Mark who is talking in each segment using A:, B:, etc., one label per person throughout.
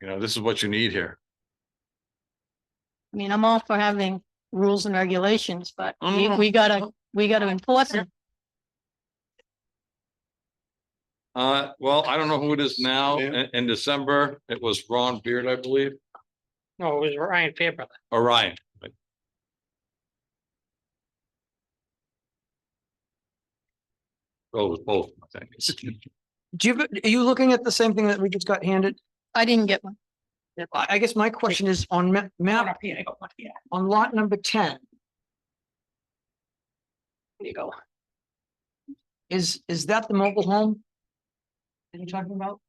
A: You know, this is what you need here.
B: I mean, I'm all for having rules and regulations, but
A: Oh,
B: we,
A: no,
C: Mm-hmm.
A: no.
B: we gotta, we gotta enforce them.
A: Uh, well, I don't know who it is now.
D: Yeah.
A: In, in December, it was Ron Beard, I believe,
E: No, it was Ryan Fairbrother.
A: or Ryan. but- Oh, it was both, I think.
C: Do you, are you looking at the same thing that we just got handed?
B: I didn't get one.
C: I, I guess my question is on ma-
E: One
C: map,
E: up here, I got one here.
C: on lot number ten,
E: There you go.
C: is, is that the mobile home? That you're talking about?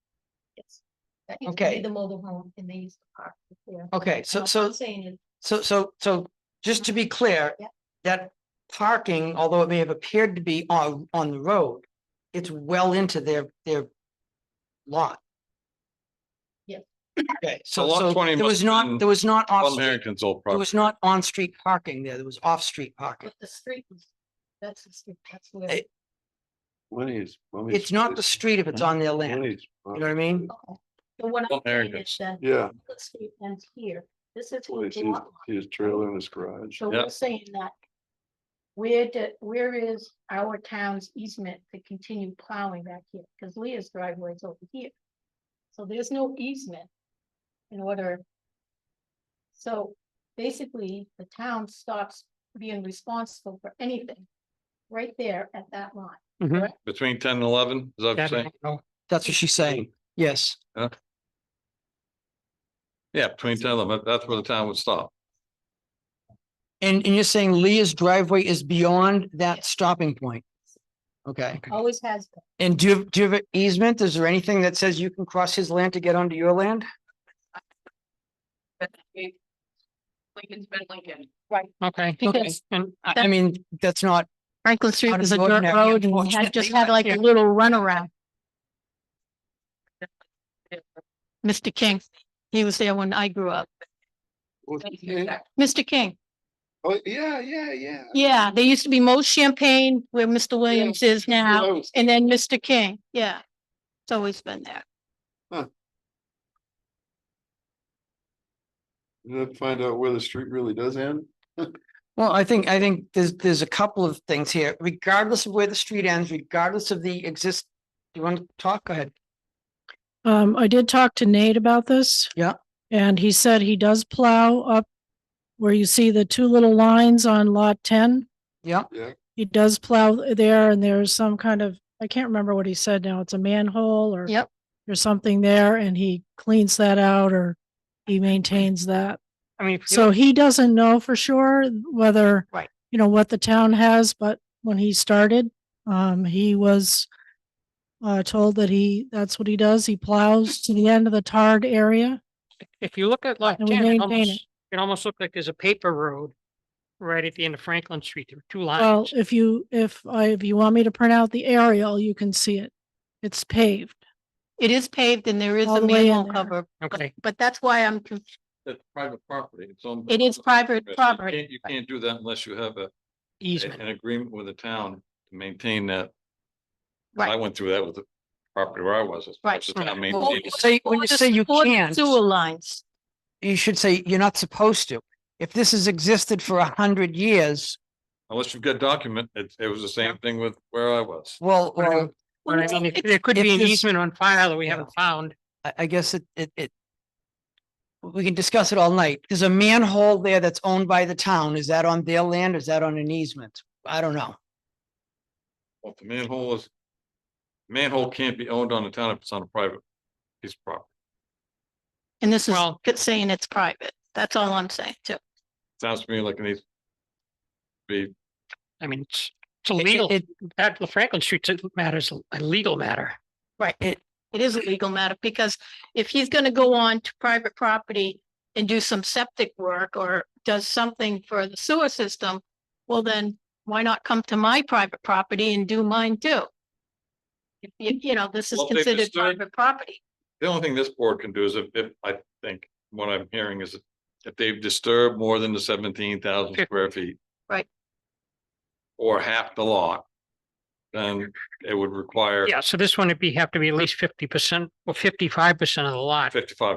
F: Yes. That used to
C: Okay.
F: be the mobile home and they used to park there.
C: Okay, so,
F: What
C: so,
F: I'm Saying is,
C: so, so, so, just to be clear.
F: Yeah.
C: That parking, although it may have appeared to be on, on the road, it's well into their, their lot.
F: Yeah.
C: Okay,
A: So
C: so,
A: lot
C: so
A: 20
C: there
A: must
C: was
A: have been
C: not, there was not off,
A: Von
C: there
A: Harrington's old property.
C: was not on-street parking there, there was off-street parking.
F: but the street was, that's, the street, that's where.
C: Eh,
D: Lenny's.
C: It's not the street if it's on their land. You know what I mean?
F: okay. So what
A: Well,
F: I'm
A: there it
F: saying is
A: goes.
F: that
D: uh, Yeah.
F: the street ends here. This is
D: Well,
F: his
D: it's his-
F: lot line.
D: His trailer in his garage.
F: So
A: Yeah.
F: we're saying that. Where did, where is our town's easement to continue plowing back here? Because Leah's driveway is over here. So there's no easement in order. So basically, the town stops being responsible for anything right there at that line.
A: Between ten and eleven, is that what you're saying?
C: That's what she's saying. Yes.
A: Yeah, between ten and eleven, that's where the town would stop.
C: And, and you're saying Leah's driveway is beyond that stopping point? Okay.
F: Always has been.
C: And do you, do you have an easement? Is there anything that says you can cross his land to get onto your land?
E: Lincoln's been Lincoln.
F: Right.
E: Okay.
B: Because
E: And I-
C: I mean, that's not,
B: Franklin Street
C: Out
B: was a
C: of
B: dirt
C: ordinary,
B: road and it had- just
E: unfortunately,
B: had
E: but
B: like a
E: here-
B: little runaround. Mr. King, he was there when I grew up.
D: Well, yeah.
E: Yeah.
B: Mr. King,
D: Oh, yeah, yeah, yeah.
B: yeah, there used to be Mo Champagne where Mr. Williams is now,
D: Close.
B: and then Mr. King, yeah. It's always been there.
D: You have to find out where the street really does end.
C: well, I think, I think there's, there's a couple of things here, regardless of where the street ends, regardless of the exist. Do you want to talk? Go ahead.
G: Um, I did talk to Nate about this.
C: Yeah.
G: And he said he does plow up where you see the two little lines on lot ten.
C: Yeah.
G: He does plow there and there's some kind of, I can't remember what he said now. It's a manhole or
B: Yep.
G: or something there and he cleans that out or he maintains that.
C: I mean, if you-
G: So he doesn't know for sure whether.
C: Right.
G: You know, what the town has, but when he started, um, he was. Uh, told that he, that's what he does. He plows to the end of the tarred area.
E: If you look at lot
G: And we
E: ten, it
G: maintain
E: almost,
G: it.
E: it almost looked like there's a paper road right at the end of Franklin Street. There were two
G: Well,
E: lines.
G: if you, if I, if you want me to print out the aerial, you can see it. It's paved.
B: It is paved and there is
G: All
B: a
G: the way in
B: manhole
G: there.
B: cover,
E: Okay.
B: but that's why I'm, conf-
A: It's private property. It's owned by-
B: it is private
A: You
B: property.
A: can't- You can't do that unless you have a,
E: Easement.
A: an agreement with the town to maintain that.
B: Right.
A: I went through that with the property where I was. it's-
B: Right.
A: it's the town
C: Well, when
A: maintained.
C: you say- when
B: Or
C: you
B: the-
C: say you
B: or the
C: can't.
B: Sewer lines.
C: you should say you're not supposed to. If this has existed for a hundred years,
A: Unless you've got document, it, it was the same thing with where I was.
C: well,
E: What I-
C: well,
E: But I mean,
B: Well,
E: if- there could
C: if
E: be an
C: there's-
E: easement on file that we
C: Yeah.
E: haven't found.
C: I, I guess it, it, it. We can discuss it all night. There's a manhole there that's owned by the town. Is that on their land? Is that on an easement? I don't know.
A: Well, the manhole is. Manhole can't be owned on the town if it's on a private piece of property.
B: And this is
E: Well-
B: good saying it's private. That's all I'm saying too.
A: Sounds to me like it needs. to Be,
E: I mean, it's, it's
C: It-
E: illegal.
C: It,
E: At the Franklin Street it matters, a legal matter.
B: It is a legal matter because if he's gonna go on to private property and do some septic work or does something for the sewer system, well then, why not come to my private property and do mine too? If You, you know, this is
A: Well, they've
B: considered
A: disturbed-
B: private property.
A: the only thing this board can do is if, if, I think, what I'm hearing is. If they've disturbed more than the seventeen thousand square feet.
B: Right.
A: Or half the lot. Then it would require
E: Yeah, so this one would be, have to be at least fifty percent or fifty-five percent of the lot.
A: fifty-five